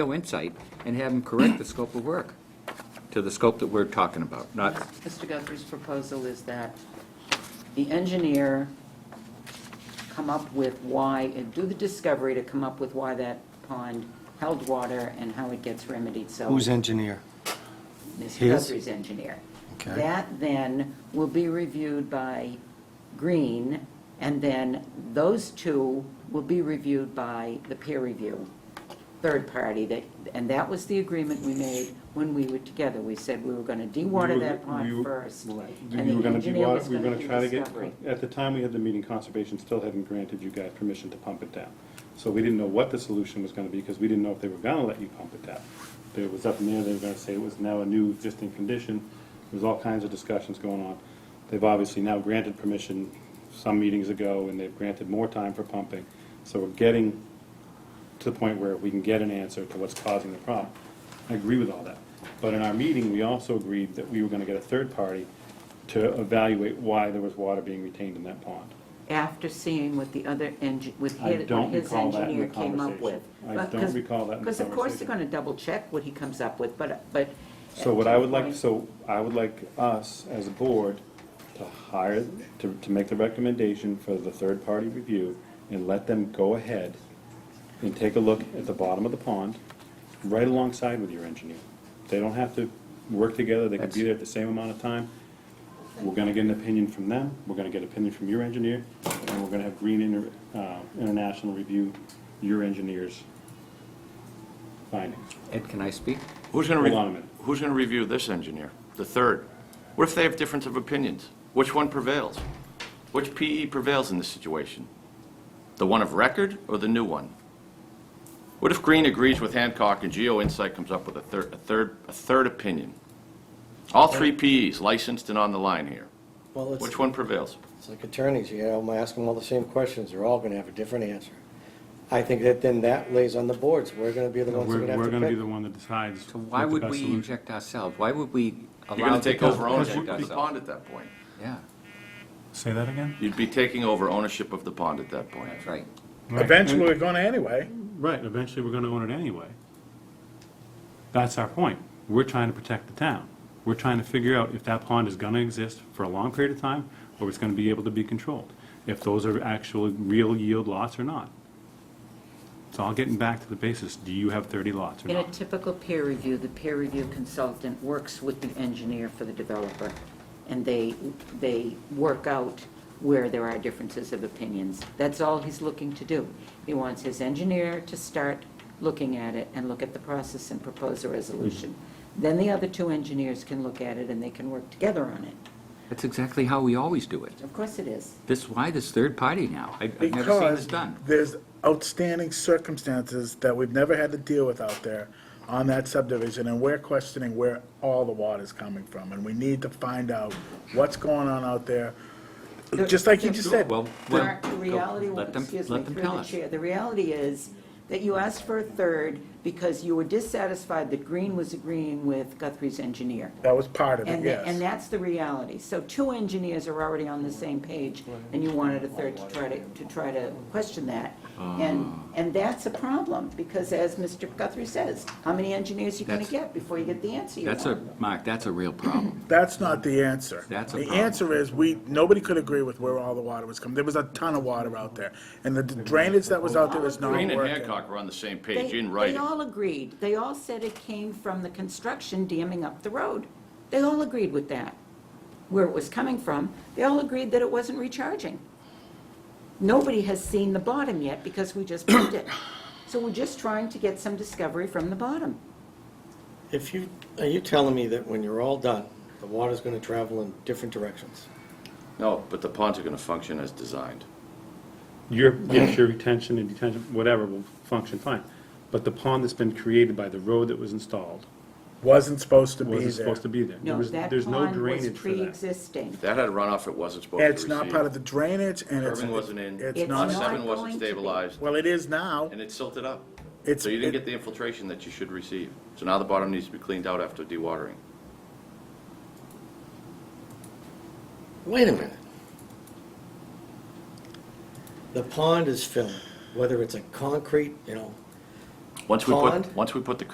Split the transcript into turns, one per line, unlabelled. no insight and have them correct the scope of work to the scope that we're talking about, not,
Mr. Guthrie's proposal is that the engineer come up with why, and do the discovery to come up with why that pond held water and how it gets remedied, so.
Who's engineer?
Mr.
His?
Guthrie's engineer.
Okay.
That then will be reviewed by Green, and then those two will be reviewed by the peer review, third party. That And that was the agreement we made when we were together. We said we were going to
We
de-water
were-
that
we
pond
were-
first.
Right.
and
We
the
were gonna
engineer
de-water-
was
we were
gonna
gonna
do
try to get-
discovery.
At the time we had the meeting, conservation still hadn't granted you guys permission to pump it down. So we didn't know what the solution was gonna be, because we didn't know if they were gonna let you pump it down. There was up in there, they were gonna say it was now a new existing condition, there's all kinds of discussions going on. They've obviously now granted permission some meetings ago, and they've granted more time for pumping. So we're getting to the point where we can get an answer to what's causing the problem. I agree with all that. But in our meeting, we also agreed that we were gonna get a third party to evaluate why there was water being retained in that pond.
After seeing what the other engi, with
I
his what
don't
his
recall that in the
engineer came up
conversation.
with.
I don't recall that in the
Because of course they're
conversation.
going to double check what he comes up with, but, but.
So what I would like, so I would like us as a board to hire, to, to make the recommendation for the third party review and let them go ahead and take a look at the bottom of the pond, right alongside with your engineer. They don't have to work together, they could be there at the same amount of time. We're gonna get an opinion from them, we're gonna get an opinion from your engineer, and we're gonna have Green Inter, uh, International review your engineer's findings.
Ed, can I speak?
Who's going
Hold on a
to,
minute.
who's going to review this engineer, the third? What if they have difference of opinions? Which one prevails? Which PE prevails in this situation? The one of record or the new one? What if Green agrees with Hancock and Geo Insight comes up with a third, a third, a third opinion? All three PEs licensed and on the line here.
Well, it's,
Which one prevails?
it's like attorneys, you know, I'm asking all the same questions, they're all gonna have a different answer. I think that then that lays on the boards, we're gonna be the ones that
We're,
are
we're
gonna
gonna
have
be
to
the
pick.
one that decides.
So why would we inject ourselves? Why would we allow?
You're going to take
the
over
government to
ownership
inject
of the
ourselves?
pond at that point.
Yeah,
Say that again?
You'd be taking over ownership of the pond at that point.
that's right.
Eventually, we're gonna anyway.
Right, eventually we're gonna own it anyway. That's our point. We're trying to protect the town. We're trying to figure out if that pond is gonna exist for a long period of time, or it's gonna be able to be controlled, if those are actual real yield lots or not. It's all getting back to the basis, do you have thirty lots or
In a
not?
typical peer review, the peer review consultant works with the engineer for the developer, and they, they work out where there are differences of opinions. That's all he's looking to do. He wants his engineer to start looking at it and look at the process and propose a resolution. Then the other two engineers can look at it and they can work together on it.
That's exactly how we always do it.
Of course it is.
This, why this third party now? I- I've never seen this done.
Because there's outstanding circumstances that we've never had to deal with out there on that subdivision, and we're questioning where all the water's coming from, and we need to find out what's going on out there. Just like you just said,
Well, well,
Mark, the reality,
go-
was-
let them,
excuse me,
let them
through
tell
the
us.
chair, the reality is that you asked for a third because you were dissatisfied that Green was agreeing with Guthrie's engineer.
that was part of it,
And, tha- and
yes.
that's the reality. So two engineers are already on the same page, and you wanted a third to try to, to try to question that.
Ah.
And, and that's a problem, because as Mr. Guthrie says, how many engineers you gonna
That's-
get before you get the answer you
That's a,
want?
Mark, that's a real problem.
That's not the answer.
That's a
The
problem.
answer is, we, nobody could agree with where all the water was coming. There was a ton of water out there, and the drainage that was out there is not
Green
working.
and Hancock were on the same page
They-
in writing.
They all agreed. They all said it came from the construction damming up the road. They all agreed with that, where it was coming from. They all agreed that it wasn't recharging. Nobody has seen the bottom yet because we just pumped it. So we're just trying to get some discovery from the bottom.
If you, are you telling me that when you're all done, the water's gonna travel in different directions?
No, but the ponds are going to function as designed.
Your, yes, your retention and detention, whatever, will function fine. But the pond that's been created by the road that was installed
Wasn't supposed to be there.
wasn't supposed to be there. There
No,
was-
that
There's no
pond was
drainage for that.
pre-existing.
If that had runoff, it wasn't supposed to receive.
It's not part of the drainage, and it's.
Irving wasn't in.
It's
It's
not,
not.
Seven
going to
wasn't
be.
stabilized,
well, it is now.
and it silted up.
It's-
So you didn't
it-
get the infiltration that you should receive. So now the bottom needs to be cleaned out after dewatering.
Wait a minute. The pond is filling, whether it's a concrete, you know,
Once we
Pond?
put, once we put the